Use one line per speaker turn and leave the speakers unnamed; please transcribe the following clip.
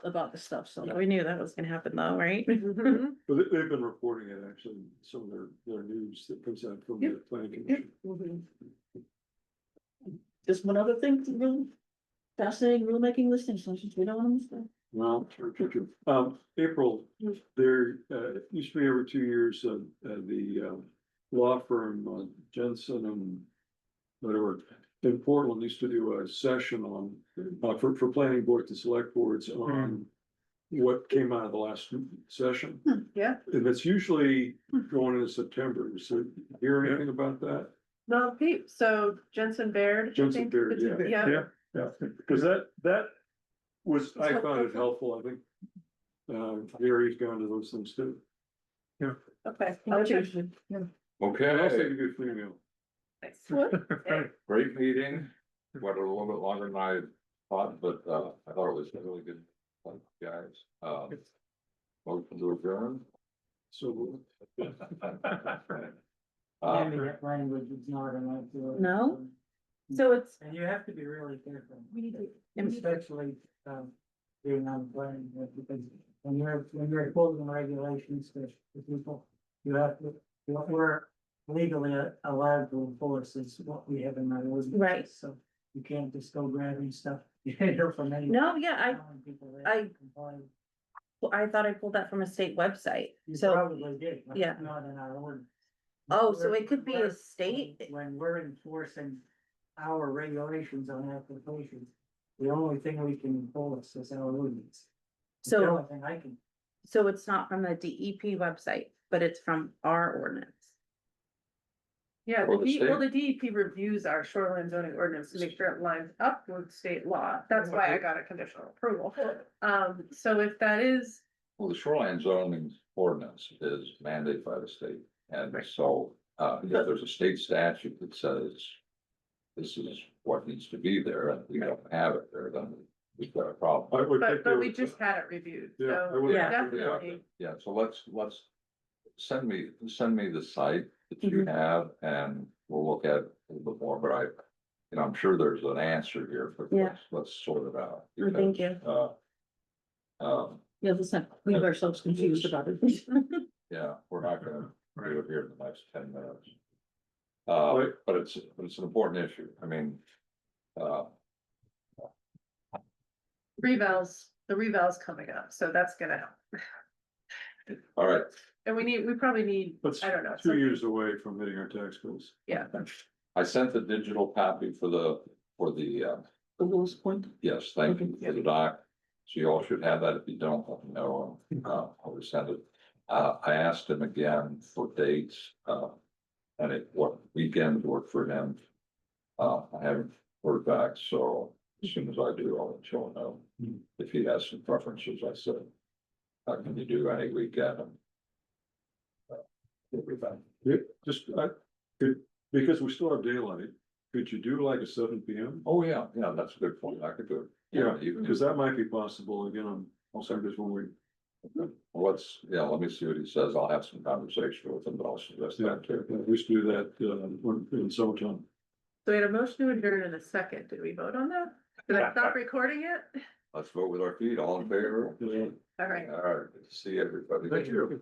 about the stuff, so we knew that was gonna happen though, right?
Mm-hmm.
Mhm.
But they, they've been reporting it actually, in some of their, their news that comes out from the planning commission.
Mm-hmm. Just one other thing, real fascinating rulemaking listening sessions, we don't want to miss that.
Well, true, true, true. Um, April, there, uh, it used to be every two years, uh, uh, the, um, law firm uh, Jensen and whatever, in Portland used to do a session on, uh, for, for planning boards and select boards on what came out of the last session.
yeah.
And that's usually going into September. So hear anything about that?
No, Pete, so Jensen Baird. I
Jensen
think,
Baird, yeah.
Yeah,
Yeah, because that, that was, I found it helpful, I think. Um, Gary's gone to those things too.
okay. I'll check.
And also
Okay,
you get free meal.
great meeting. Went a little bit longer than I thought, but uh, I thought it was really good. Thank you, Guys, uh, welcome to adjourn.
So.
Uh,
That language is not enough. to-
No? So it's,
And you have to be really careful.
We need to.
Especially, um, being on planning, board, because when you're, when you're imposing regulations to to people, you have to, what we're legally allowed to enforce is what we have in our ordinance.
Right.
So you can't just go grabbing stuff, you can't go from any.
no, yeah,
telling people that
I-
complain.
I, I thought I pulled that from a state website,
You
so,
probably did, but
yeah.
it's not in our ordinance.
oh, so it could be
We're-
a state,
When we're enforcing our regulations on applications, the only thing we can enforce is our ordinance. It's The
so,
only thing I can,
so it's not from the DEP website, but it's from our ordinance.
Yeah,
Or
the
the
D, well, the
state.
DEP reviews our shoreline zoning ordinance to make sure it lines up with state law. That's why I
Mm-hmm.
got a conditional approval. Um, so if that is,
Well, the shoreline zoning ordinance is mandated by the state, and so, uh, yeah, there's a state statute that says. This is what needs to be there, and we don't have it there, then we've got a problem.
I would think
but,
they
but we
would-
just had it reviewed,
Yeah, I
so.
would-
Yeah.
Definitely.
Yeah, so let's, let's, send me, send me the site that you
Mhm.
have and we'll look at it a little bit more, but I. And I'm sure there's an answer here, but
Yeah.
let's, let's sort it out.
Oh, Thank you.
Uh, Um,
Yeah, let's not leave ourselves confused about it.
yeah, we're not gonna do
Right.
it here in the next ten minutes. Uh,
Right.
but it's, but it's an important issue, I mean, uh,
Revals, the reval's coming up, so that's gonna help.
all right,
And we need, we probably need,
That's
I don't know.
two
something-
years away from hitting our tax bills.
Yeah.
I sent the digital copy for the, for the, uh,
The lowest point.
Yes, thank you for the doc. So you all should have that. If you don't, let me know. Uh, I'll resend it. Uh, I asked him again for dates, uh, and it, what weekend worked for him. Uh, I haven't heard back, so as soon as I do, I'll let you all know. If he has some preferences, I said, uh, can you do any weekend? Uh, we'll be back.
Yeah, just, I, could- because we still have daylight, could you do like a seven P M?
Oh, yeah, yeah, that's a good point. I could do it.
Yeah,
even
because that might be possible, again, I'm, also just when we,
Well, Let's, yeah, let me see what he says. I'll have some conversation with him, but I'll suggest
yeah,
that too.
we used to do that, uh, when- in summertime.
So we had a motion to adjourn in a second. Did we vote on that? Did I stop recording it?
Let's vote with our feet, all in favor?
Yeah.
All right.
All right, good to see everybody.
Thank you.